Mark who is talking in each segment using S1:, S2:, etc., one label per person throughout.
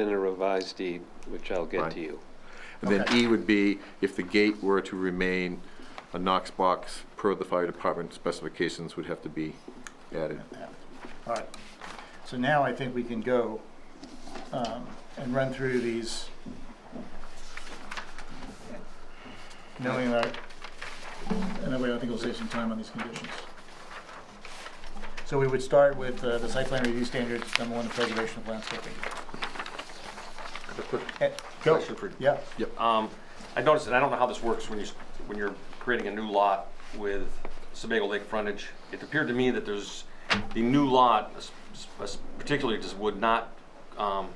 S1: in a revised deed, which I'll get
S2: Right.
S1: to you.
S2: And then
S3: Okay.
S2: E would be if the gate were to remain a Knox box per the fire department specifications would have to be added.
S3: All right, so now I think we can go um, and run through these. Knowing that, and that way I think we'll save some time on these conditions. So we would start with uh, the site plan review standards, number one, the preservation of landscaping.
S4: A quick
S3: Eh, Go,
S4: question for,
S3: yeah,
S4: um, I noticed, and I don't know how this works when you, s- when you're creating a new lot with Sebago Lake frontage. It appeared to me that there's, the new lot es- es- particularly just would not, um,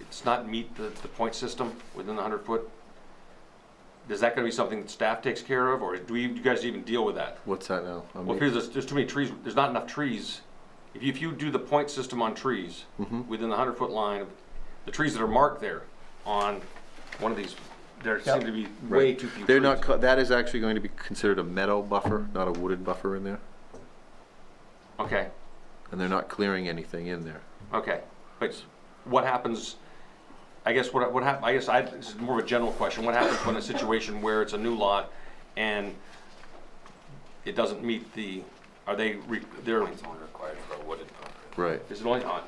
S4: it's not meet the, the point system within the hundred foot. Is that gonna be something that staff takes care of, or do we, do you guys even deal with that?
S2: What's that now? I
S4: Well,
S2: mean,
S4: because there's, there's too many trees, there's not enough trees. If you, if you do the point system on trees,
S2: Mm-hmm.
S4: within the hundred foot line, of the trees that are marked there on one of these, there seem
S3: Yep.
S4: to be way
S2: Right.
S4: too few trees.
S2: They're not, co- that is actually going to be considered a meadow buffer, not a wooded buffer in there,
S4: Okay,
S2: and they're not clearing anything in there.
S4: okay. But what happens, I guess what, what hap, I guess I, this is more of a general question. What happens when a situation where it's a new lot and it doesn't meet the, are they, re- they're,
S5: It's only required for a wooden buffer.
S2: Right,
S4: is it only, on?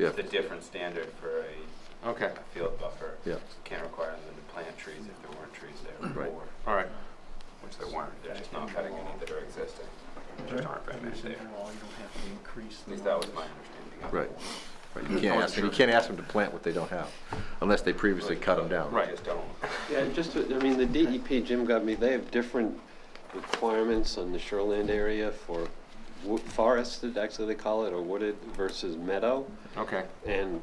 S2: yeah,
S5: It's a different standard for a
S4: okay,
S5: a field buffer.
S2: Yeah.
S5: Can't require them to plant trees if there weren't trees there
S2: Right.
S5: before,
S4: all right.
S5: which there weren't. They're just not cutting any that are existing. There just aren't very many there. At least that was my understanding. of it.
S2: right. Right, You can't ask, them- you can't ask them to plant what they don't have, unless they previously cut them down.
S4: Right.
S5: Just don't.
S1: Yeah, just, to- I mean, the DEP, Jim got me, they have different requirements on the shoreland area for wo- forested, actually they call it, or wooded versus meadow.
S4: Okay,
S1: And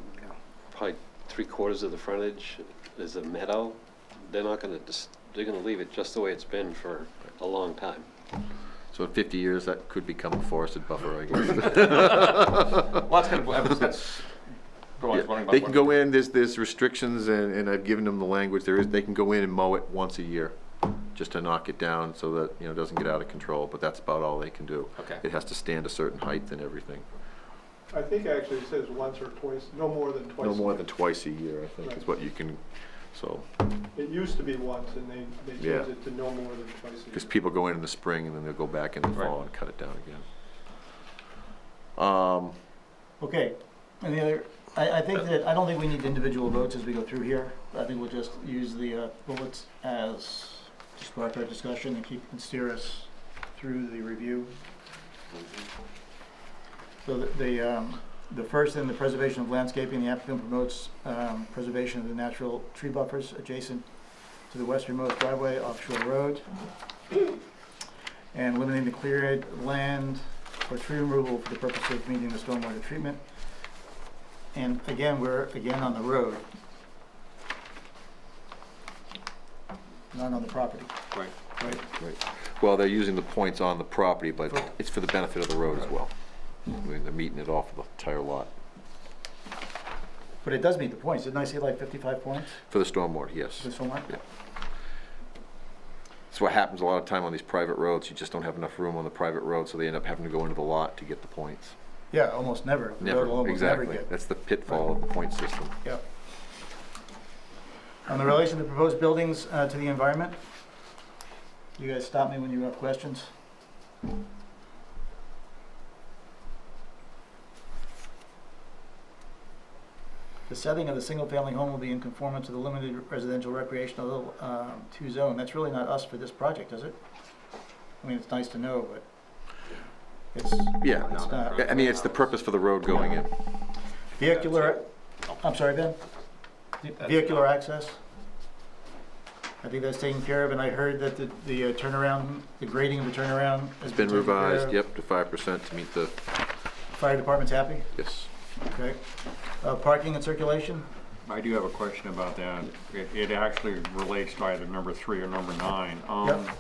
S1: probably three quarters of the frontage is a meadow. They're not gonna, dis- they're gonna leave it just the way it's been for a long time.
S2: So in fifty years, that could become a forested buffer, I guess.
S4: well, that's kind of, that's, go on, I was wondering
S2: Yeah,
S4: about
S2: They can
S4: what-
S2: go in, there's, there's restrictions, and, and I've given them the language, there is, they can go in and mow it once a year, just to knock it down, so that, you know, it doesn't get out of control, but that's about all they can do.
S4: Okay.
S2: It has to stand a certain height and everything,
S6: I think actually it says once or twice, no more than twice.
S2: no more than twice a year, I think, is
S6: Right.
S2: what you can, so,
S6: It used to be once, and they, they
S2: Yeah.
S6: changed it to no more than twice a year.
S2: because people go in in the spring, and then they'll go back in the fall
S4: Right.
S2: and cut it down again. Um,
S3: okay. Any other, I, I think that, I don't think we need individual votes as we go through here. I think we'll just use the uh, bullets as just part of our discussion and keep, and steer us through the review. So the- the, um, the first in the preservation of landscaping, the applicant promotes um, preservation of the natural tree buffers adjacent to the westernmost driveway offshore road. And limiting the cleared land for tree removal for the purpose of meeting the stormwater treatment. And again, we're again on the road. Not on the property.
S4: Right.
S3: Right.
S2: Right. Well, they're using the points on the property, but it's for the benefit of the road as well. I mean, They're meeting it off the entire lot.
S3: But it does meet the points. Didn't I say like fifty-five points
S2: For the stormwater, yes.
S3: for this homework?
S2: Yeah. That's what happens a lot of time on these private roads, you just don't have enough room on the private road, so they end up having to go into the lot to get the points.
S3: Yeah, almost never. The road will
S2: Never,
S3: almost never
S2: exactly.
S3: get-
S2: That's the pitfall of the point system.
S3: Yep. On the relation of the proposed buildings uh, to the environment, you guys stop me when you have questions. The setting of the single-family home will be in conformance to the limited residential recreational um, two zone. That's really not us for this project, is it? I mean, it's nice to know, but it's,
S2: Yeah,
S3: it's not.
S2: I- I mean, it's the purpose for the road going in.
S3: Vehicular, I'm sorry, Ben? Vehicular access? I think that's taken care of, and I heard that the the uh, turnaround, the grading of the turnaround
S2: It's
S3: has been
S2: been
S3: taken care
S2: revised,
S3: of.
S2: yep, to five percent to meet the,
S3: Fire department's happy,
S2: yes.
S3: okay. Uh, Parking and circulation,
S7: I do have a question about that. It, it actually relates to either number three or number nine. Um,
S3: Yep.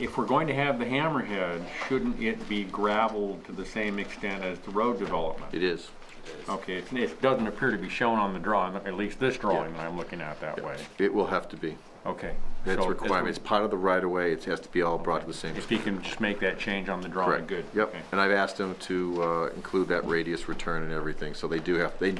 S7: If we're going to have the hammerhead, shouldn't it be gravelled to the same extent as the road development?
S2: It is.
S7: Okay, it, it doesn't appear to be shown on the drawing, at least this drawing that I'm looking at that way.
S2: It will have to be.
S7: Okay.
S2: That's
S7: so
S2: a
S7: if-
S2: requirement. It's part of the right of way. It has to be all brought to the same.
S7: If you can just make that change on the drawing,
S2: Correct.
S7: good.
S2: Yep.
S7: Okay.
S2: And I've asked them to uh, include that radius return and everything, so they do have, they